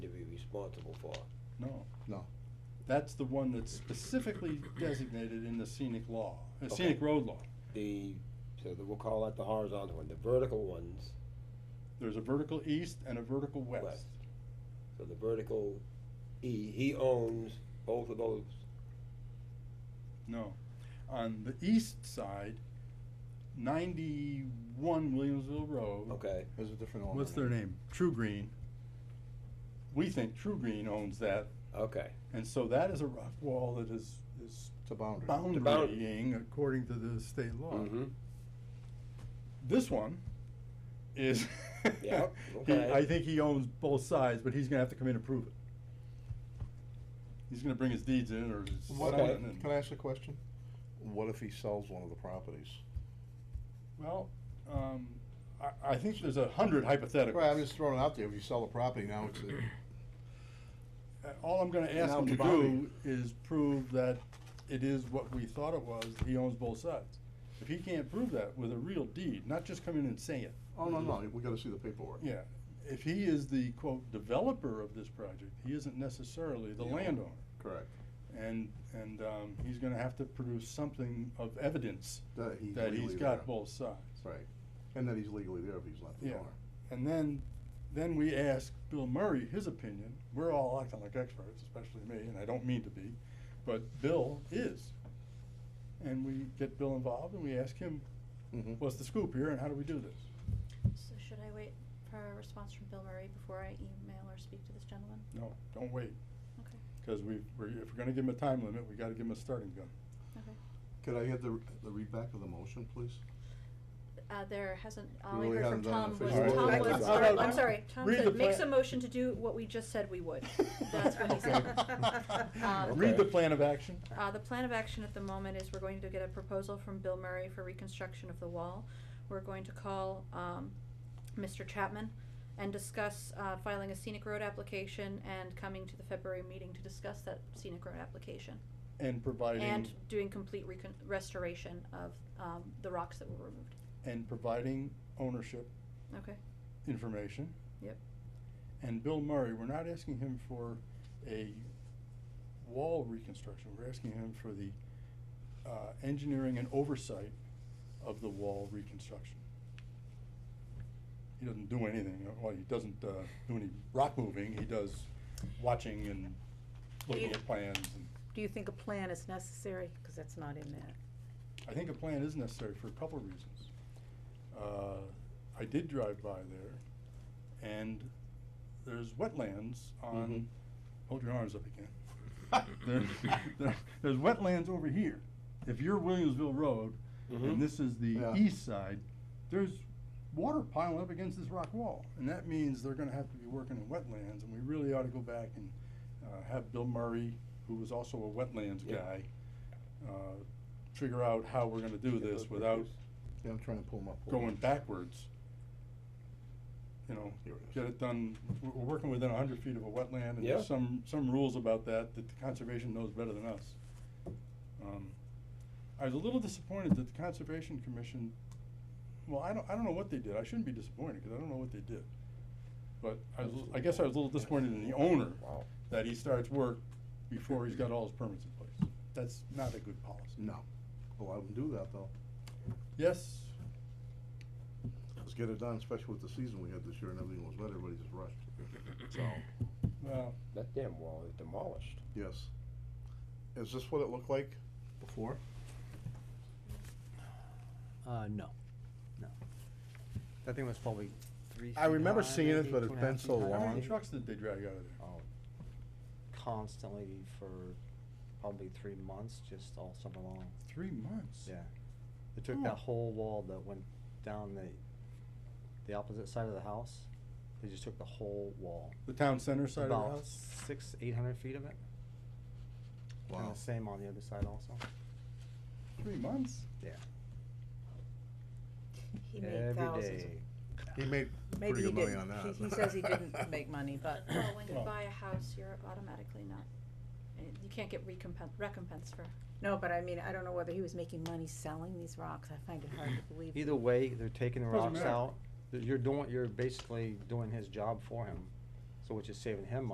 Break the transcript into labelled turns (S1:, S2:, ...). S1: responsible for.
S2: No.
S3: No.
S2: That's the one that's specifically designated in the scenic law, uh,
S1: Okay.
S2: scenic road law.
S1: The, so the- we'll call that the horizontal one, the vertical ones,
S2: There's a vertical east and a vertical west.
S1: West. so the vertical, he, he owns both of those.
S2: No. On the east side, ninety-one Williamsville Road.
S1: Okay,
S3: There's a different owner.
S2: What's their name? True Green. We think True Green owns that,
S1: okay,
S2: and so that is a rock wall that is, is
S3: It's a boundary.
S2: boundarying according to the state law.
S1: mm-hmm,
S2: This one is, he,
S1: Yeah, okay.
S2: I think he owns both sides, but he's gonna have to come in and prove it. He's gonna bring his deeds in or his.
S3: What,
S2: son
S1: Okay.
S2: and-
S3: can I ask a question? What if he sells one of the properties?
S2: Well, um, I, I think there's a hundred hypotheticals.
S3: Right, I'm just throwing it out there, if you sell the property now, it's, a-
S2: Uh, All I'm gonna ask
S3: Now
S2: him to do
S3: Kibani.
S2: is prove that it is what we thought it was, he owns both sides. If he can't prove that with a real deed, not just come in and say it,
S3: oh, no, no, we gotta see the paperwork.
S2: yeah. If he is the quote developer of this project, he isn't necessarily the
S3: Yeah.
S2: landowner.
S3: Correct.
S2: And, and, um, he's gonna have to produce something of evidence
S3: That he's
S2: that he's
S3: legally
S2: got
S3: there.
S2: both sides.
S3: Right, and that he's legally there if he's not the
S2: Yeah.
S3: owner.
S2: And then, then we ask Bill Murray his opinion. We're all acting like experts, especially me, and I don't mean to be, but Bill is. And we get Bill involved and we ask him,
S3: Mhm.
S2: what's the scoop here and how do we do this?
S4: So should I wait for a response from Bill Murray before I email or speak to this gentleman?
S2: No, don't wait,
S4: Okay,
S2: because we, we're, if we're gonna give him a time limit, we gotta give him a starting gun.
S4: okay.
S3: Could I have the, the read back of the motion, please?
S4: Uh, there hasn't, all
S3: We
S4: we
S3: really
S4: heard from Tom
S3: haven't
S4: was,
S3: done an official
S4: Tom
S3: vote.
S4: was,
S3: All
S4: or,
S3: right,
S4: I'm
S3: now-
S4: sorry, Tom
S2: read the
S4: said, makes a
S2: plan."
S4: motion to do what we just said we would. That's what he Um, said.
S2: Read the plan of action.
S4: Uh, the plan of action at the moment is we're going to get a proposal from Bill Murray for reconstruction of the wall. We're going to call, um, Mr. Chapman and discuss, uh, filing a scenic road application and coming to the February meeting to discuss that scenic road application.
S2: And providing,
S4: And doing complete recon- restoration of, um, the rocks that were removed.
S2: and providing ownership
S4: Okay,
S2: information.
S4: Yep.
S2: And Bill Murray, we're not asking him for a wall reconstruction, we're asking him for the uh, engineering and oversight of the wall reconstruction. He doesn't do anything, uh, well, he doesn't uh, do any rock moving, he does watching and looking at plans. and-
S5: Do you think a plan is necessary? Because that's not in there.
S2: I think a plan is necessary for a couple of reasons. Uh, I did drive by there, and there's wetlands on, hold your arms up again. There- there- There's wetlands over here. If you're Williamsville Road,
S1: Mhm.
S2: and this is the
S3: Yeah.
S2: east side, there's water piling up against this rock wall. And that means they're gonna have to be working in wetlands, and we really ought to go back and uh, have Bill Murray, who was also a wetlands
S1: Yeah.
S2: guy, uh, figure out how we're gonna do
S1: Get
S2: this
S1: those
S2: without
S1: pictures.
S3: Yeah, I'm trying to pull them up. Hold on.
S2: going backwards. You know,
S3: Here it is.
S2: get it done, we're, we're working within a hundred feet of a wetland, and
S1: Yeah.
S2: there's some, some rules about that, that the conservation knows better than us. Um, I was a little disappointed that the Conservation Commission, well, I don't, I don't know what they did, I shouldn't be disappointed, cause I don't know what they did. But I was, I guess I was a little disappointed in the owner,
S1: Wow.
S2: that he starts work before he's got all his permits in place. That's not a good policy.
S3: No, allow them to do that though.
S2: Yes,
S3: Let's get it done, especially with the season we had this year and everything was wet, everybody just rushed. So,
S2: well,
S1: That damn wall is demolished.
S3: yes. Is this what it looked like before?
S6: Uh, no, no. That thing was probably three.
S3: I
S6: feet
S3: remember
S6: high,
S3: seeing it,
S6: maybe,
S3: but
S6: two
S3: it's
S6: and a half
S3: been
S6: feet
S3: so
S6: high.
S2: how many
S3: long.
S2: trucks did they drag out of there?
S6: Oh, Constantly for probably three months, just all summer long,
S2: Three months.
S6: yeah. It took
S2: Oh.
S6: that whole wall that went down the, the opposite side of the house, they just took the whole wall.
S2: The town center side of the
S6: About
S2: house?
S6: six, eight hundred feet of it. And
S3: Wow.
S6: the same on the other side also,
S2: Three months?
S6: yeah.
S5: He made thousands.
S6: Every day.
S3: He made
S5: Maybe
S3: pretty good
S5: he
S3: money
S5: didn't.
S3: on that.
S5: He, he says he didn't make money, but
S4: well, when you
S2: Well-
S4: buy a house, you're automatically not, eh, you can't get recompen- recompense for,
S5: no. But I mean, I don't know whether he was making money selling these rocks. I find it hard to believe.
S6: Either way, they're taking the
S2: Doesn't
S6: rocks
S2: matter.
S6: out, you're doing, you're basically doing his job for him, so which is saving him money